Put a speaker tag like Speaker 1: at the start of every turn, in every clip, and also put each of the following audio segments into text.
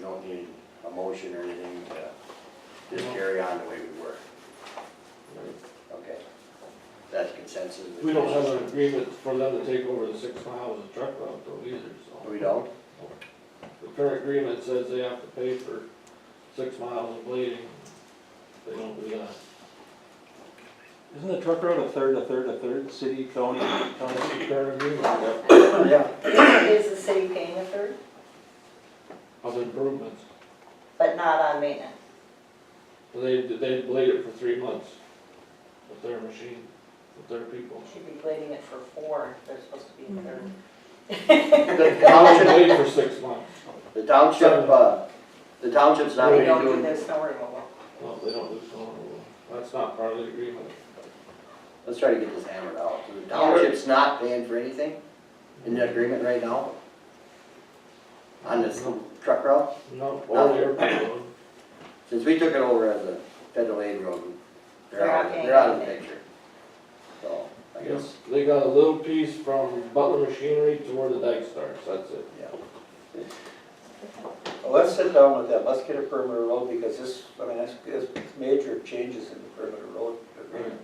Speaker 1: don't need a motion or anything to just carry on the way we were. Okay. That's consensus. of the
Speaker 2: We don't have an
Speaker 1: commission.
Speaker 2: agreement for them to take over the six miles of truck route though either,
Speaker 3: Oh,
Speaker 2: so.
Speaker 1: Oh, We don't?
Speaker 2: The current agreement says they have to pay for six miles of blading. They don't do that.
Speaker 3: Isn't the truck route a third, a third, a third, city, county, county?
Speaker 2: Current agreement
Speaker 1: Yeah.
Speaker 4: Is the city paying a third,
Speaker 2: of improvements.
Speaker 4: but not on maintenance?
Speaker 2: They, they blade it for three months with their machine, with their people.
Speaker 4: Should be blading it for four, if they're supposed to be a third.
Speaker 5: Mm-hmm.
Speaker 1: The
Speaker 2: How
Speaker 1: township,
Speaker 2: blade for six months?
Speaker 1: the township, uh, the township's not
Speaker 4: They
Speaker 1: really
Speaker 4: don't do
Speaker 1: doing,
Speaker 4: their snow removal.
Speaker 2: No, they don't do snow removal. That's not part of the agreement.
Speaker 1: let's try to get this hammered out. So The township's not paying for anything in the agreement right now? On this truck route?
Speaker 2: No, all their people.
Speaker 1: Since we took it over as a federal aid road, they're
Speaker 4: They're
Speaker 1: out,
Speaker 4: not
Speaker 1: of-
Speaker 4: paying
Speaker 1: they're out of the
Speaker 4: anything.
Speaker 1: picture. So, I guess,
Speaker 2: They got a little piece from Butler Machinery to where the dike starts, that's it.
Speaker 1: yeah.
Speaker 6: Well, Let's sit down with them, let's get a perimeter road, because this, I mean, that's, it's major changes in the perimeter road agreement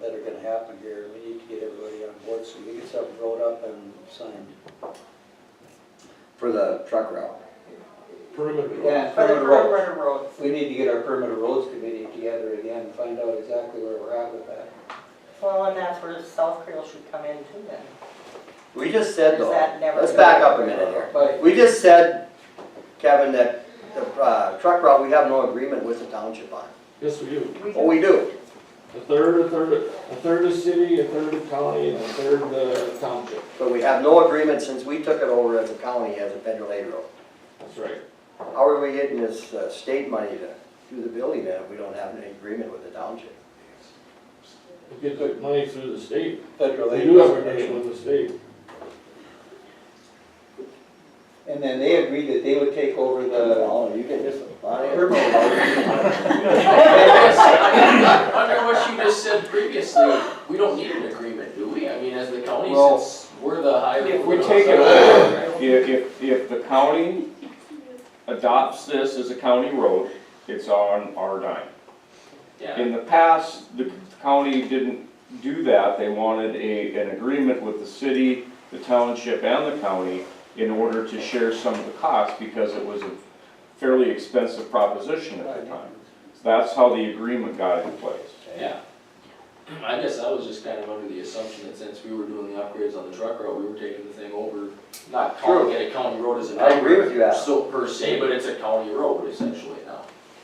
Speaker 6: that are gonna happen here, we need to get everybody on board, so we get something wrote up and signed.
Speaker 1: For the truck route.
Speaker 2: Perimeter.
Speaker 6: Yeah,
Speaker 4: For the
Speaker 6: perimeter roads,
Speaker 4: perimeter roads.
Speaker 6: we need to get our perimeter roads committee together again, and find out exactly where we're at with that.
Speaker 4: Well, and that's where South Creel should come in too then.
Speaker 1: We just said
Speaker 4: Is
Speaker 1: though,
Speaker 4: that never
Speaker 1: let's
Speaker 4: gonna
Speaker 1: back
Speaker 4: be
Speaker 1: up a
Speaker 4: approved?
Speaker 1: minute here.
Speaker 6: But,
Speaker 1: We just said, Kevin, that the uh, truck route, we have no agreement with the township on.
Speaker 2: Yes, we do.
Speaker 4: We
Speaker 1: Oh, we do.
Speaker 2: A third, a third, a third of city, a third of county, and a third uh, township.
Speaker 1: But we have no agreement since we took it over as a county, as a federal aid road.
Speaker 2: That's right.
Speaker 1: How are we getting this uh, state money to do the building then if we don't have any agreement with the township?
Speaker 2: We get the money through the state.
Speaker 6: federal
Speaker 2: We
Speaker 6: aid.
Speaker 2: do have a name with the state.
Speaker 6: And then they agreed that they would take over the
Speaker 1: Well, you get this, Bonnie?
Speaker 6: perimeter road.
Speaker 5: Under what you just said previously, we don't need an agreement, do we? I mean, as the county,
Speaker 6: Well,
Speaker 5: since we're the higher.
Speaker 6: if we take it over-
Speaker 7: If, if, if the county adopts this as a county road, it's on our dime.
Speaker 5: Yeah,
Speaker 7: In the past, the county didn't do that, they wanted a, an agreement with the city, the township, and the county in order to share some of the costs, because it was a fairly expensive proposition at the time. That's how the agreement got in place.
Speaker 5: yeah. I guess I was just kind of under the assumption that since we were doing the upgrades on the truck route, we were taking the thing over, not calling it a county road as an.
Speaker 1: I agree with you, Al.
Speaker 5: So per se, but it's a county road essentially now.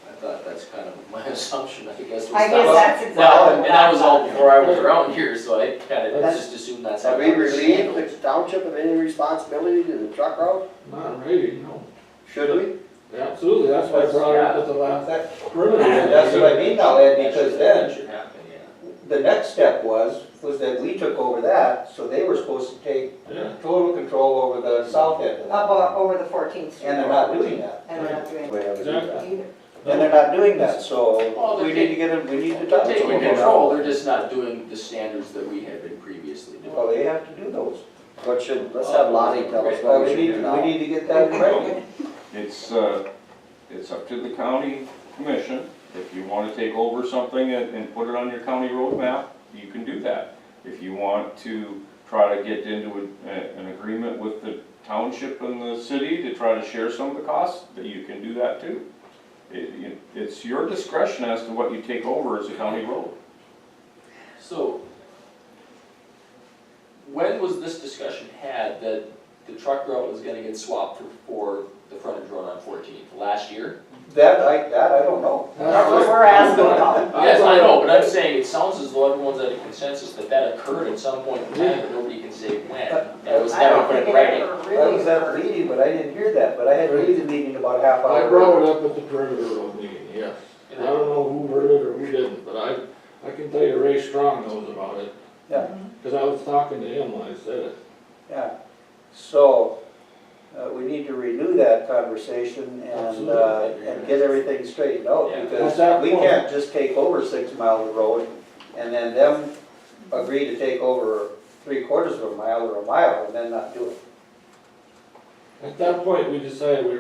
Speaker 5: I thought that's kind of my assumption, I guess. was
Speaker 4: I
Speaker 5: that-
Speaker 4: guess that's exactly.
Speaker 5: Well, and
Speaker 4: what
Speaker 5: that was all
Speaker 4: I thought.
Speaker 5: before I was around here, so I kind of
Speaker 1: That's-
Speaker 5: just assumed that's
Speaker 1: Have
Speaker 5: how.
Speaker 1: we
Speaker 5: it was
Speaker 1: relieved
Speaker 5: handled.
Speaker 1: the township of any responsibility to the truck route?
Speaker 2: Not really, no.
Speaker 1: Should we?
Speaker 2: Absolutely, that's why I brought it up at the last
Speaker 6: That-
Speaker 2: perimeter.
Speaker 6: That's what I mean now, Ed,
Speaker 5: That
Speaker 6: because
Speaker 5: should-
Speaker 6: then,
Speaker 5: that Should happen, yeah.
Speaker 6: The next step was, was that we took over that, so they were supposed to take
Speaker 2: Yeah.
Speaker 6: total control over the south end of
Speaker 4: Up
Speaker 6: that.
Speaker 4: o- over the Fourteenth Street.
Speaker 6: And they're not doing that.
Speaker 4: And they're not doing
Speaker 1: We haven't done that.
Speaker 4: it either.
Speaker 6: And they're not doing that,
Speaker 5: Well,
Speaker 6: so
Speaker 5: they're
Speaker 6: we need to get them, we need to
Speaker 5: They're
Speaker 6: talk to them
Speaker 5: taking control,
Speaker 6: about
Speaker 5: they're
Speaker 6: it.
Speaker 5: just not doing the standards that we had been previously doing.
Speaker 6: Well, they have to do those.
Speaker 1: What should, let's have Lonnie tell us what
Speaker 6: Well,
Speaker 1: we
Speaker 6: we
Speaker 1: should
Speaker 6: need,
Speaker 1: do
Speaker 6: we
Speaker 1: now.
Speaker 6: need to get that right.
Speaker 7: It's, uh, it's up to the county commission. If you want to take over something and, and put it on your county road map, you can do that. If you want to try to get into a- a- an agreement with the township and the city to try to share some of the costs, that you can do that too. It, you- it's your discretion as to what you take over as a county road.
Speaker 5: So, when was this discussion had that the truck route was gonna get swapped for, for the frontage road on Fourteenth, last year?
Speaker 6: That, I, that I don't know.
Speaker 4: That's what we're asking about.
Speaker 5: Yes, I know, but I'm saying, it sounds as though everyone's at a consensus that that occurred at some point in time, but nobody can say when. That was
Speaker 4: I
Speaker 5: never
Speaker 4: don't
Speaker 5: put
Speaker 4: think it
Speaker 5: in writing.
Speaker 4: ever
Speaker 6: I was
Speaker 4: really.
Speaker 6: at the meeting, but I didn't hear that, but I had to leave the meeting about a half hour.
Speaker 2: I brought it up at the perimeter road meeting, yes. I
Speaker 5: And then-
Speaker 2: don't know who heard it or who didn't, but I, I can tell you Ray Strong knows about it.
Speaker 6: Yeah.
Speaker 2: Cause I was talking to him when I said it.
Speaker 6: Yeah, so, uh, we need to renew that conversation and, uh,
Speaker 5: Absolutely.
Speaker 6: and get everything straightened out,
Speaker 5: Yeah.
Speaker 2: At that
Speaker 6: because we
Speaker 2: point-
Speaker 6: can't just take over six miles of road and then them agree to take over three quarters of a mile or a mile and then not do it.
Speaker 2: At that point, we decided we